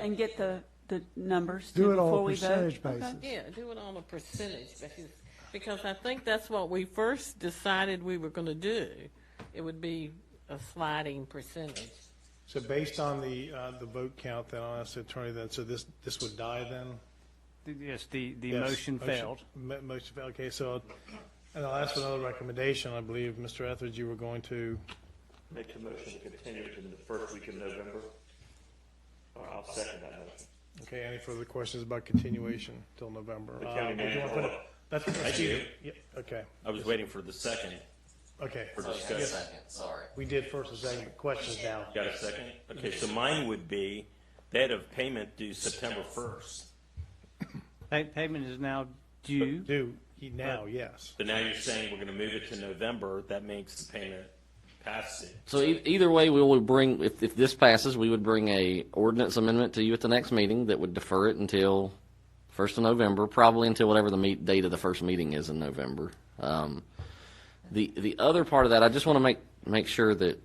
And get the, the numbers Do too it on before a we vote? percentage Okay. basis. Yeah, do it on a percentage basis, because I think that's what we first decided we were gonna do. It would be a sliding percentage. So based on the, uh, the vote count, then I'll ask the attorney then, so this, this would die then? Yes, the, the Yes. motion failed. Mo- Motion failed, okay, so, I'll- and I'll ask for another recommendation, I believe, Mr. Etheridge, you were going to, Make the motion to continue to the first week of November. Or I'll second that motion. okay, any further questions about continuation till November? The Uh, county do you manager wanna put will- it- That's, I do. yeah, okay, I was waiting for the second okay, for Yes. discussion. Second, sorry. we did first and second, questions now. Got a second? Okay, so mine would be that of payment due September first. Pa- Payment is now due. Do, he- now, yes. So now you're saying we're gonna move it to November, that makes the payment past it. So e- either way, we will bring, if, if this passes, we would bring a ordinance amendment to you at the next meeting that would defer it until first of November, probably until whatever the meet, date of the first meeting is in November. Um, the, the other part of that, I just want to make, make sure that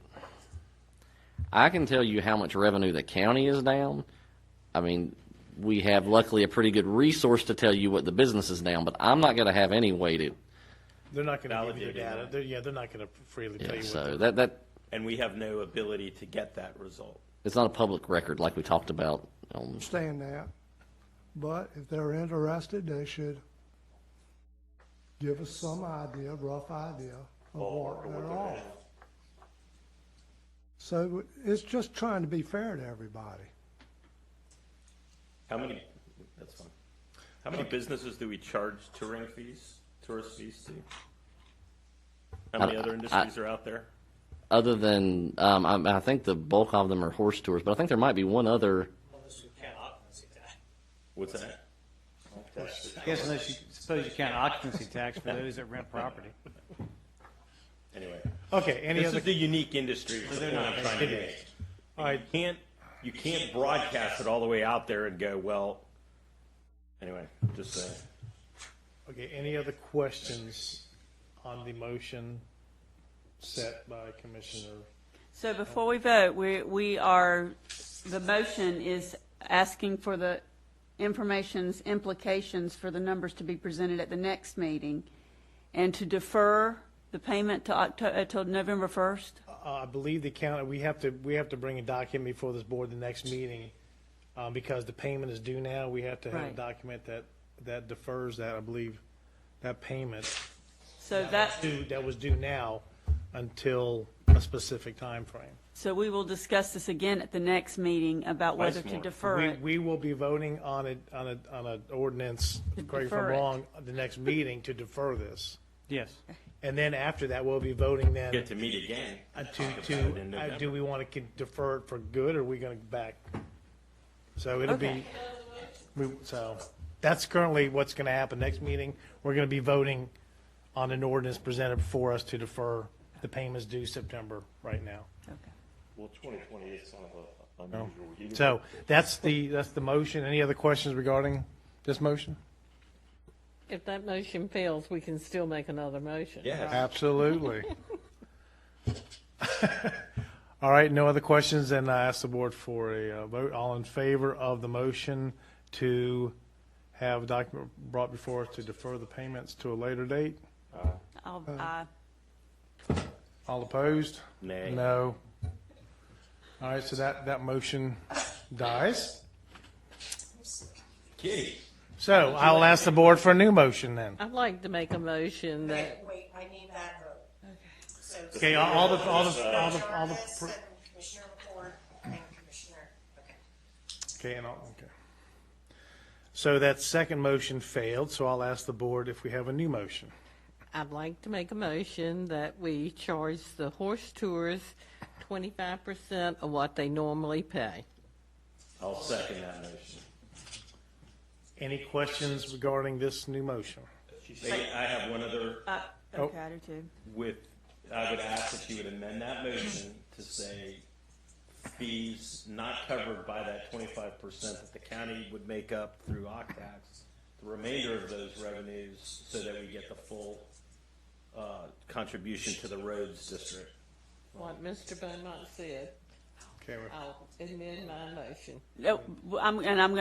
I can tell you how much revenue the county is down. I mean, we have luckily a pretty good resource to tell you what the business is down, but I'm not going to have any way to, They're not gonna give you the Validated, yeah. data, They're- yeah, they're not gonna freely tell you what. so the- that, that, And we have no ability to get that result. it's not a public record like we talked about um, on understand that, but if they're interested, they should give us some idea, rough idea of what they're off. So it's just trying to be fair to everybody. How many, that's fine. How many businesses do we charge touring fees, tourist fees to? How many I- other I- industries are out there? other than um, I, I think the bulk of them are horse tours, but I think there might be one other. What's that? I guess unless you, suppose you count occupancy tax for those that rent property. Anyway, Okay, any this other, is the unique industry. is the point I'm trying to make. all right, You can't you can't broadcast it all the way out there and go well. Anyway, just uh, saying. Okay, any other questions on the motion set by Commissioner? So before we vote, we, we are, the motion is asking for the information's implications for the numbers to be presented at the next meeting and to defer the payment to Octo, uh, till November 1st? Uh, I believe the county, we have to, we have to bring a document before this board the next meeting, uh, because the payment is due now, we have to have a Right. document that, that defers that, I believe, that payment. So that, Due, that was due now until a specific time frame. so we will discuss this again at the next meeting about whether to Weissmore. defer it. We, we will be voting on a, on a, on a ordinance, correct if I'm defer it. wrong, the next meeting to defer this. Yes. And then after that, we'll be voting then. Get to meet again. Uh, Talk To, about to, it in uh, November. do we want to defer it for good, or are we going to back? So it'll be, Okay. we, so, that's currently what's going to happen. Next meeting, we're going to be voting on an ordinance presented before us to defer the payments due September right now. Okay. Well, twenty twenty is kind of a unusual year. So that's the, that's the motion. Any other questions regarding this motion? If that motion fails, we can still make another motion. yeah. Absolutely. All right, no other questions, then I ask the board for a uh, vote. All in favor of the motion to have a document brought before us to defer the payments to a later date? I'll, Uh, I, All opposed? Nay. No. All right, so that, that motion dies. Kitty. So I'll ask the board for a new motion then. I'd like to make a motion that Wait, wait, I need that vote. So Okay, all- all the, all the, all Commissioner the, all the, Jarvis and Commissioner McCord and Commissioner, okay. okay, and all, okay. So that second motion failed, so I'll ask the board if we have a new motion. I'd like to make a motion that we charge the horse tours twenty-five percent of what they normally pay. I'll second that motion. Any questions regarding this new motion? They- I have one other I, oh. okay, I do too. with. I would ask that you would amend that motion to say fees not covered by that 25 percent that the county would make up through OCTAX, the remainder of those revenues, so that we get the full uh, contribution to the roads district. What Mr. Beaumont said. Okay, we're- I'll amend my motion. No, I'm- And I'm going